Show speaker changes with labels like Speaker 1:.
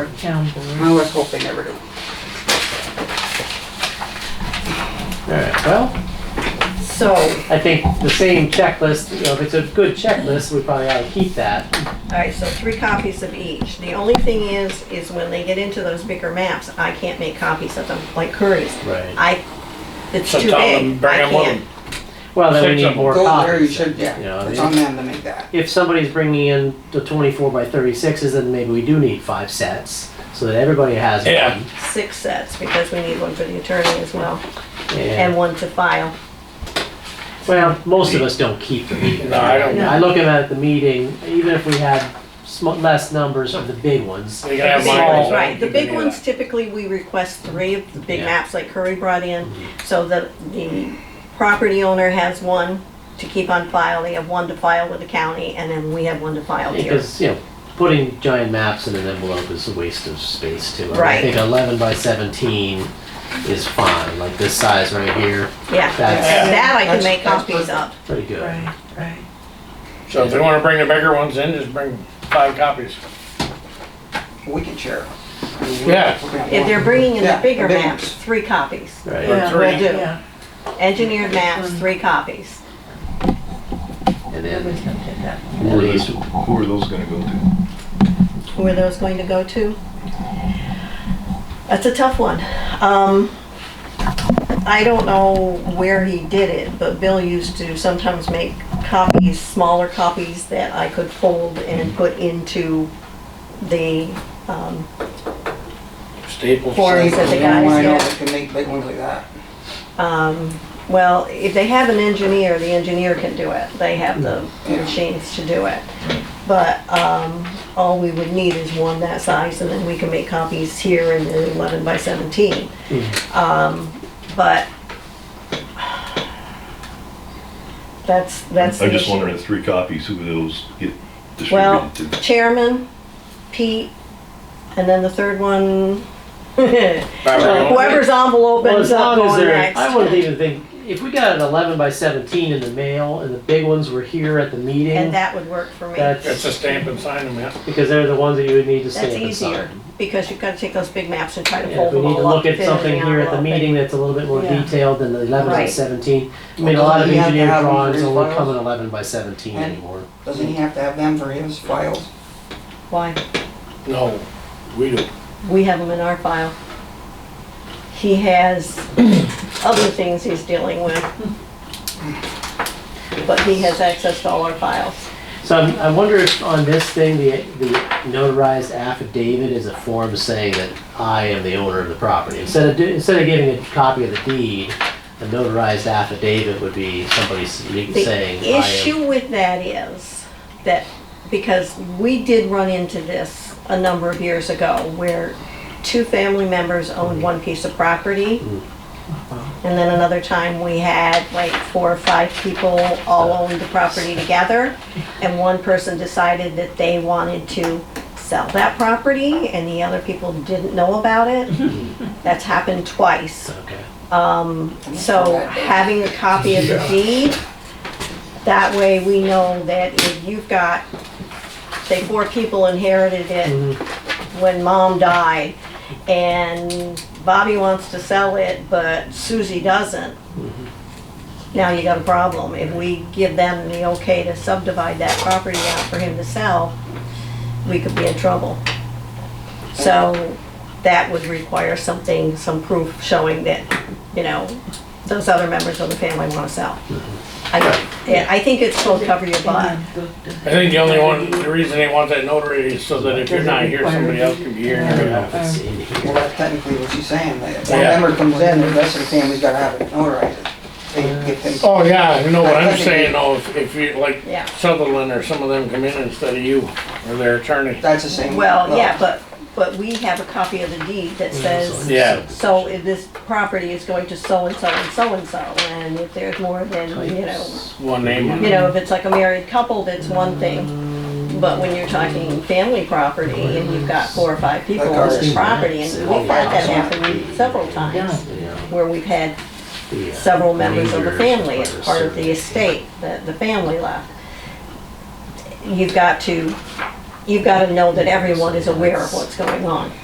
Speaker 1: our town board.
Speaker 2: I was hoping they were doing.
Speaker 3: Alright, well,
Speaker 1: So
Speaker 3: I think the same checklist, you know, if it's a good checklist, we probably ought to keep that.
Speaker 4: All right, so three copies of each. The only thing is, is when they get into those bigger maps, I can't make copies of them like Curry's.
Speaker 3: Right.
Speaker 4: I, it's
Speaker 5: So
Speaker 4: too
Speaker 5: tell
Speaker 4: big.
Speaker 5: them, bring
Speaker 4: I
Speaker 5: 'em with
Speaker 4: can't.
Speaker 3: Well, then we
Speaker 5: Six
Speaker 3: need
Speaker 5: of
Speaker 3: more
Speaker 2: Go there, you
Speaker 3: copies.
Speaker 2: should,
Speaker 3: Yeah,
Speaker 2: yeah,
Speaker 3: I
Speaker 2: it's
Speaker 3: mean-
Speaker 2: on them to make that.
Speaker 3: If somebody's bringing in the twenty-four by thirty-sixes, then maybe we do need five sets, so that everybody has
Speaker 5: Yeah.
Speaker 3: one.
Speaker 4: Six sets, because we need one for the attorney as well, and
Speaker 3: And,
Speaker 4: one to file.
Speaker 3: well, most of us don't keep them either.
Speaker 5: No, I don't.
Speaker 3: I look at it at the meeting, even if we had sm- less numbers of the big ones,
Speaker 5: We can have
Speaker 4: Big
Speaker 5: mine.
Speaker 4: ones,
Speaker 5: so
Speaker 4: Right, the
Speaker 5: you can
Speaker 4: big
Speaker 5: do
Speaker 4: ones
Speaker 5: that.
Speaker 4: typically, we request three of the big
Speaker 3: Yeah.
Speaker 4: maps like Curry brought in, so that the property owner has one to keep on file, they have one to file with the county, and then we have one to file here.
Speaker 3: because, you know, putting giant maps in an envelope is a waste of space too. I mean, I
Speaker 4: Right.
Speaker 3: think eleven by seventeen is fine, like this size right here,
Speaker 4: Yeah,
Speaker 3: That's-
Speaker 4: that I
Speaker 2: That's-
Speaker 4: can make
Speaker 2: that's
Speaker 4: copies of.
Speaker 3: pretty good.
Speaker 1: right, right.
Speaker 5: So if they wanna bring the bigger ones in, just bring five copies.
Speaker 2: We can share.
Speaker 5: Yeah.
Speaker 4: If they're bringing in the
Speaker 2: Yeah,
Speaker 4: bigger
Speaker 2: the big
Speaker 4: maps,
Speaker 2: ones.
Speaker 4: three copies.
Speaker 3: Right.
Speaker 5: Or
Speaker 1: Yeah,
Speaker 5: three.
Speaker 4: Will do.
Speaker 1: Yeah,
Speaker 4: Engineered maps, three copies.
Speaker 1: we
Speaker 3: And then
Speaker 1: can get that.
Speaker 6: Who are
Speaker 3: release
Speaker 6: those, who are those gonna go to?
Speaker 4: Who are those going to go to? That's a tough one. Um, I don't know where he did it, but Bill used to sometimes make copies, smaller copies that I could fold and put into the, um,
Speaker 5: Staples.
Speaker 4: Forms that they got,
Speaker 2: I know
Speaker 4: yeah.
Speaker 2: that can make big ones like that.
Speaker 4: um, well, if they have an engineer, the engineer can do it. They have the
Speaker 2: Yeah.
Speaker 4: machines to do it. But um, all we would need is one that size, and then we can make copies here in the 11 by 17.
Speaker 3: Hmm.
Speaker 4: Um, But that's, that's.
Speaker 6: I'm just
Speaker 4: the issue.
Speaker 6: wondering, three copies, who those get
Speaker 4: Well,
Speaker 6: distributed to?
Speaker 4: chairman, Pete, and then the third one, whoever's envelope
Speaker 3: Well, as
Speaker 4: ends up
Speaker 3: long as
Speaker 4: going
Speaker 3: they're,
Speaker 4: next.
Speaker 3: I wouldn't even think, if we got an eleven by seventeen in the mail and the big ones were here at the meeting,
Speaker 4: And that would work for me.
Speaker 5: It's a
Speaker 3: that's,
Speaker 5: stamp and sign them, yeah.
Speaker 3: because they're the ones that you would need to
Speaker 4: That's
Speaker 3: stamp and sign.
Speaker 4: easier, because you've gotta take those big maps and try to
Speaker 3: Yeah,
Speaker 4: fold
Speaker 3: if we
Speaker 4: them
Speaker 3: need to
Speaker 4: all up.
Speaker 3: look at
Speaker 4: fit in
Speaker 3: something here at the
Speaker 4: envelope.
Speaker 3: meeting that's a little bit more
Speaker 1: Yeah.
Speaker 3: detailed than the eleven by
Speaker 4: Right.
Speaker 3: seventeen. I mean, a lot of
Speaker 2: Although you have to
Speaker 3: engineer
Speaker 2: have them
Speaker 3: drawings
Speaker 2: for
Speaker 3: don't
Speaker 2: your
Speaker 3: look come in
Speaker 2: files.
Speaker 3: eleven by seventeen
Speaker 2: And-
Speaker 3: anymore.
Speaker 2: Doesn't he have to have them for his files?
Speaker 4: Why?
Speaker 5: No, we do.
Speaker 4: We have them in our file. He has other things he's dealing with. But he has access to all our files.
Speaker 3: So I'm, I wonder if on this thing, the, the notarized affidavit is a form saying that I am the owner of the property. Instead of, do- instead of giving a copy of the deed, a notarized affidavit would be somebody s- saying
Speaker 4: The
Speaker 3: I am.
Speaker 4: issue with that is that, because we did run into this a number of years ago where two family members owned one piece of property. And then another time we had like four or five people all owned the property together. And one person decided that they wanted to sell that property and the other people didn't know about it. That's happened twice.
Speaker 3: Okay.
Speaker 4: Um, So having a copy of the deed, that way we know that if you've got, say, four people inherited it when mom died, and Bobby wants to sell it, but Susie doesn't, now you got a problem. If we give them the okay to subdivide that property out for him to sell, we could be in trouble. So that would require something, some proof showing that, you know, those other members of the family want to sell. I, yeah, I think it's supposed to cover your butt.
Speaker 5: I think the only one, the reason they want that notary is so that if you're not here, somebody else can be here.
Speaker 3: I
Speaker 5: and
Speaker 3: don't
Speaker 5: you're
Speaker 3: know
Speaker 5: gonna-
Speaker 3: if it's in here.
Speaker 2: Well, that's technically what she's saying, that if one
Speaker 5: Yeah.
Speaker 2: member comes in, the rest of the family's gotta have it notarized. They get him,
Speaker 5: Oh, yeah, you know what I'm saying, though, if- if you, like
Speaker 4: Yeah.
Speaker 5: Sutherland or some of them come in instead of you, or their attorney.
Speaker 2: that's the same.
Speaker 4: Well, yeah, but, but we have a copy of the deed that says,
Speaker 5: Yeah.
Speaker 4: so if this property is going to so-and-so and so-and-so, and if there's more than, you know,
Speaker 5: One name on
Speaker 4: you
Speaker 5: it.
Speaker 4: know, if it's like a married couple, that's one thing. But when you're talking family property and you've got four or five people on this property, and we've had that happen several times,
Speaker 3: Yeah,
Speaker 4: where we've had
Speaker 3: the, uh,
Speaker 4: several members of the
Speaker 3: rangers
Speaker 4: family as
Speaker 3: require
Speaker 4: part of the
Speaker 3: certain-
Speaker 4: estate, that the family left. You've got to you've got to know that everyone is aware of what's going on.